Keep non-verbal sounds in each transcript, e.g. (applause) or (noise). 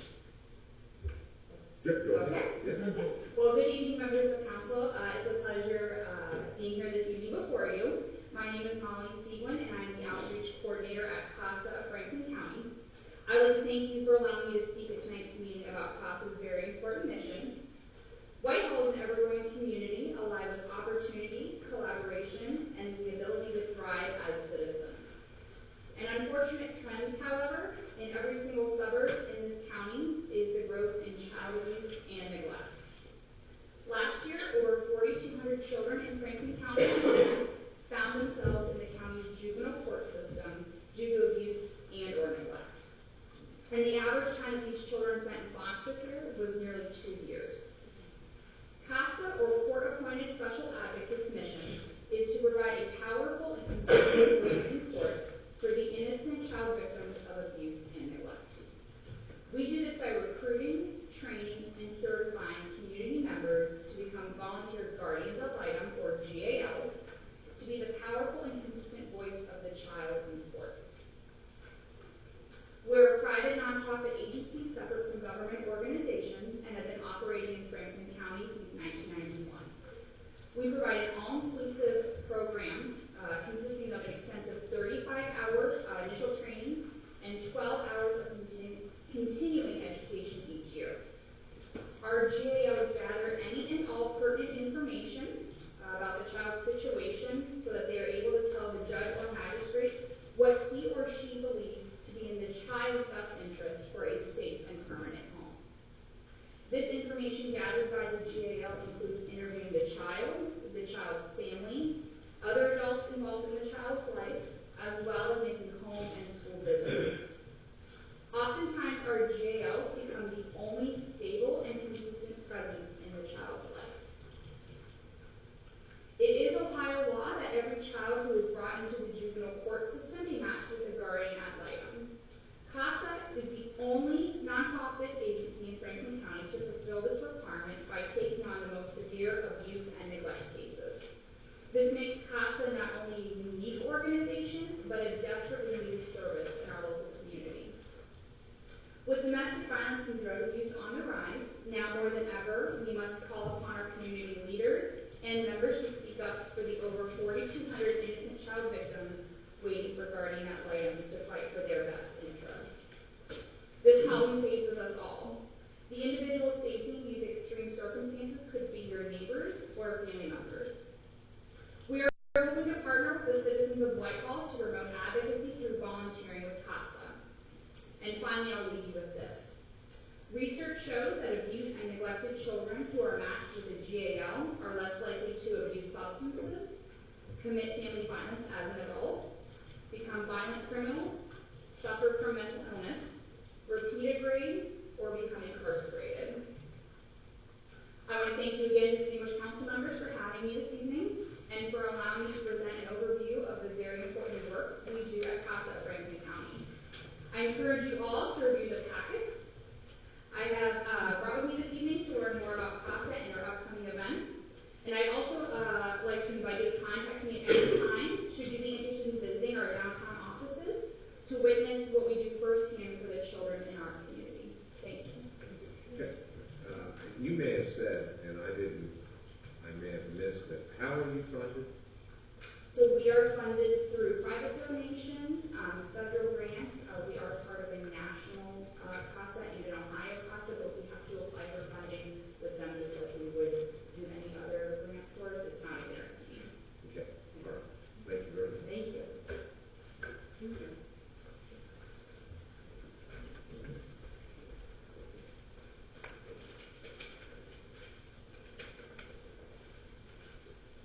Uh, allowing me to speak at tonight's meeting about CASA's very important mission. Whitehall is an ever-growing community alive with opportunity, collaboration, and the ability to thrive as citizens. An unfortunate trend, however, in every single suburb in this county is the growth in child abuse and neglect. Last year, over 4,200 children in Franklin County (coughs) found themselves in the county's juvenile court system due to abuse and or neglect. And the average time these children spent in foster care was nearly two years. CASA, or Court Appointed Special Advocate Commission, is to provide a powerful and competitive voice in court for the innocent child victims of abuse and neglect. We do this by recruiting, training, and certifying community members to become volunteer guardians ad litem, or GALs, to be the powerful and consistent voice of the child in court. We're a private nonprofit agency separate from government organizations and have been operating in Franklin County since 1991. We provide an all-inclusive program uh, consisting of an extensive 35-hour uh, initial training and 12 hours of continu- continuing education each year. Our GAO would gather any and all pertinent information uh, about the child's situation so that they are able to tell the judge or magistrate what he or she believes to be in the child's best interest for a safe and permanent home. This information gathered by the GAL includes interviewing the child, the child's family, other adults involved in the child's life, as well as making home and school visits. Oftentimes, our GALs become the only stable and consistent presence in the child's life. It is Ohio law that every child who is brought into the juvenile court system be matched with a guardian ad litem. CASA is the only nonprofit agency in Franklin County to fulfill this requirement by taking on the most severe abuse and neglect cases. This makes CASA not only a unique organization, but a desperately needed service in our local community. With domestic violence and drug abuse on the rise, now more than ever, we must call upon our community leaders and members to speak up for the over 4,200 innocent child victims waiting for guardian ad litems to fight for their best interests. This problem faces us all. The individuals facing these extreme circumstances could be your neighbors or family members. We are hoping to partner with the citizens of Whitehall to promote advocacy through volunteering with CASA. And finally, I'll leave you with this. Research shows that abused and neglected children who are matched with a GAL are less likely to abuse substances, commit family violence as an adult, become violent criminals, suffer from mental illness, repeat a grade, or become incarcerated. I want to thank you again, distinguished council members, for having me this evening and for allowing me to present an overview of the very important work we do at CASA Franklin County. I encourage you all to review the packets I have uh, brought with me this evening to learn more about CASA and our upcoming events. And I'd also uh, like to invite you to contact me at any time should you be interested in visiting our downtown offices to witness what we do firsthand for the children in our community. Thank you. Uh, You may have said, and I didn't, I may have missed it, how are you funded? So we are funded through private donations, um, federal grants. Uh, we are part of a national uh, CASA and an Ohio CASA, but we have to apply for funding with them just like we would do any other grant source. It's not a guarantee. Okay, all right, thank you very much. Thank you.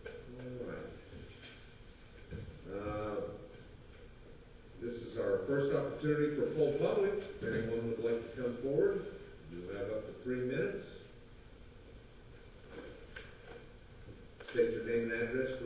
All right. Uh, This is our first opportunity for full public, if anyone would like to come forward, you have up to three minutes. State your name and address